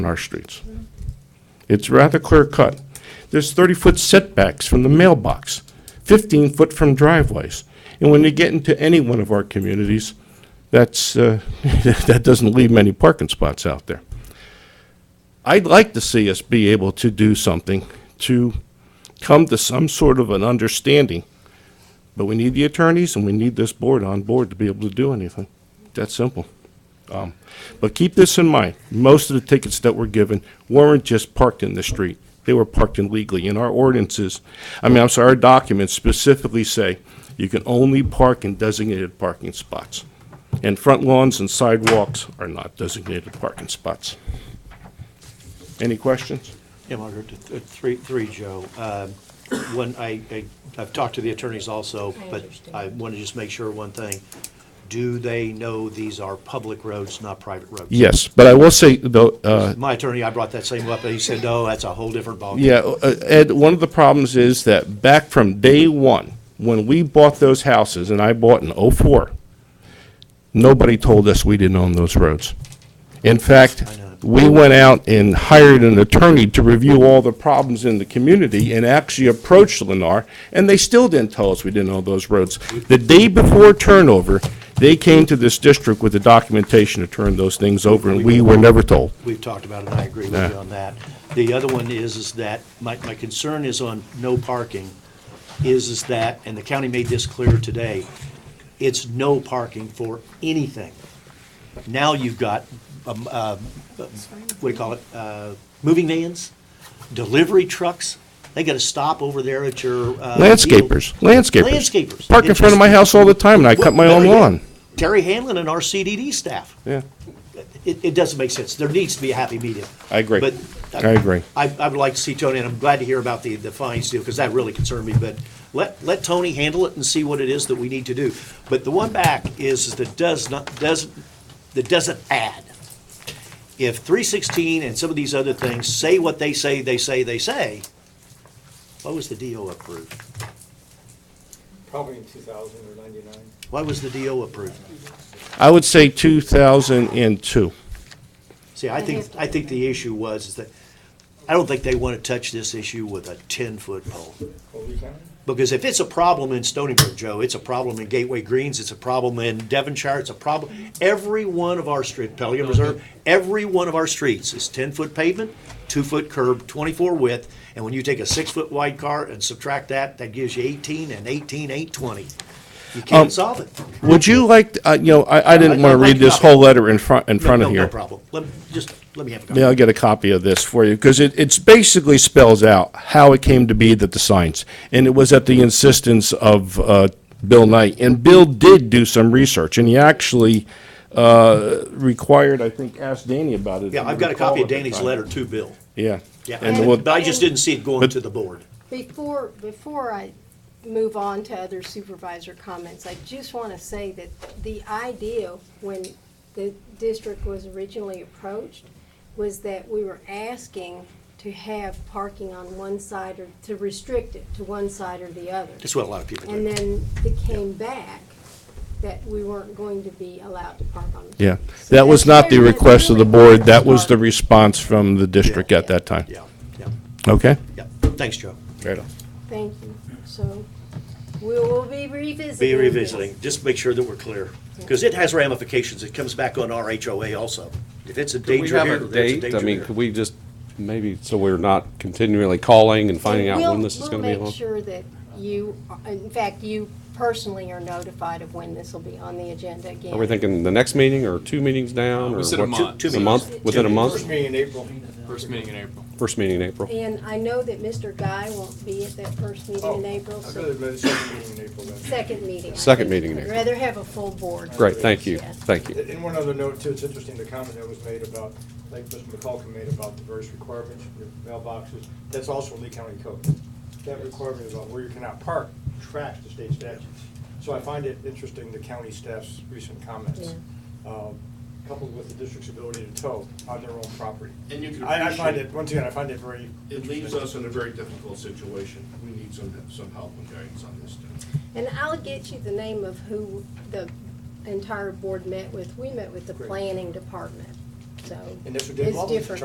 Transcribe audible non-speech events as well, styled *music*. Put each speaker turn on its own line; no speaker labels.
on our streets. It's rather clear cut. There's 30-foot setbacks from the mailbox, 15-foot from driveways. And when you get into any one of our communities, that's, uh, *laughs* that doesn't leave many parking spots out there. I'd like to see us be able to do something to come to some sort of an understanding, but we need the attorneys and we need this board on board to be able to do anything. That's simple. Um, But keep this in mind, most of the tickets that were given weren't just parked in the street. They were parked illegally. And our ordinances, I mean, I'm sorry, our documents specifically say you can only park in designated parking spots. And front lawns and sidewalks are not designated parking spots. Any questions?
Yeah, Margaret, th- th- three, three, Joe. Um, When I, I- I've talked to the attorneys also,
I
but
understand.
I want to just make sure one thing. Do they know these are public roads, not private roads?
Yes, but I will say, though, uh,
My attorney, I brought that same up, and he said, no, that's a whole different ballgame.
yeah, uh, Ed, one of the problems is that back from day one, when we bought those houses, and I bought in '04, nobody told us we didn't own those roads. In fact,
I know.
we went out and hired an attorney to review all the problems in the community and actually approached Lennar, and they still didn't tell us we didn't own those roads. The day before turnover, they came to this district with the documentation to turn those things over, and we were never told.
We've talked about it, and I agree with you on that. The other one is, is that, my, my concern is on no parking, is, is that, and the county made this clear today, it's no parking for anything. Now you've got, um, uh, what do you call it, uh, moving vans, delivery trucks, they gotta stop over there at your, uh. field.
Landscapers, landscapers.
Landscapers.
Park in
It
front of
just-
my house all the time, and I cut my own
Well, yeah.
lawn.
Terry Hanlon and our CDD staff.
Yeah,
It, it doesn't make sense. There needs to be a happy medium.
I agree.
But. uh,
I agree.
I, I would like to see Tony, and I'm glad to hear about the, the fines deal, because that really concerned me, but let, let Tony handle it and see what it is that we need to do. But the one back is that does not, doesn't, that doesn't add. If three sixteen and some of these other things say what they say, they say, they say, why was the DO approved?
Probably in 2000 or 99.
Why was the DO approved?
I would say 2002.
See, I think, I think the issue was is that, I don't think they want to touch this issue with a ten-foot pole.
Colby County?
Because if it's a problem in Stony Brook, Joe, it's a problem in Gateway Greens, it's a problem in Devonshire, it's a problem, every one of our street, Pelican
Mm-hmm.
Reserve, every one of our streets is ten-foot pavement, two-foot curb, twenty-four width, and when you take a six-foot wide car and subtract that, that gives you eighteen, and eighteen ain't twenty. You
Um,
can't solve it.
Would you like, uh, you know, I I didn't
I'd
want to
like
read
a
this
copy.
whole letter in front, in
No-
front
no-
of here.
No problem. Let, me- just, let me have a
May I
copy.
get a copy of this for you? Because it, it's basically spells out how it came to be that the signs, and it was at the insistence of uh, Bill Knight. And Bill did do some research, and he actually uh, required, I think, asked Danny about it. if
Yeah,
you
I've got a
recall
copy
at
of
the
Danny's
time.
letter to Bill.
Yeah.
Yeah,
And
and-
we'll-
but I just didn't see it going
but-
to the board.
Before, before I move on to other supervisor comments, I just want to say that the idea when the district was originally approached was that we were asking to have parking on one side or to restrict it to one side or the other.
That's what a lot of people
And
do.
then it came back that we weren't going to be allowed to park on.
Yeah,
So
that was
that's
not the
clear,
request of the
really
board, that was the
parking.
response from the district at that time.
Yeah, yeah,
Okay?
yeah. Thanks, Joe.
Right on.
Thank you. So we will be revisiting.
Be
this.
revisiting, just make sure that we're clear, because it has ramifications, it comes back on our HOA also. If it's a
Could we
danger
have
here,
a
there's a
date?
danger
I mean,
there.
could we just, maybe, so we're not continually calling and finding out when
We'll-
this is gonna be
We'll
on?
make sure that you, in fact, you personally are notified of when this will be on the agenda again.
Are we thinking the next meeting or two meetings down?
We
or
said a
what?
month.
Two
A month,
meetings.
within a
First
month?
meeting in April.
First meeting in April.
First meeting in April.
And I know that Mr. Guy won't be at that first meeting
Oh,
in April,
I'd rather
so
go to the second meeting in April then.
second meeting. I think.
Second meeting in April.
I'd rather have a full board.
Great, thank you,
Yes.
thank you.
And one other note too, it's interesting, the comment that was made about, like Mr. McCulkin made about the various requirements, your mailboxes, that's also Lee County Code. That requirement about where you cannot park tracks the state statutes. So I find it interesting, the county staff's recent comments, um, coupled with the district's ability to tow on their own property.
And you can
I I find
appreciate-
it, once again, I find it very
It leaves
interesting.
us in a very difficult situation. We need some, some help and guidance on this. thing.
And I'll get you the name of who the entire board met with. We met with the
Great.
planning department, so.
And that's what
it's
Dave Baldwin
different.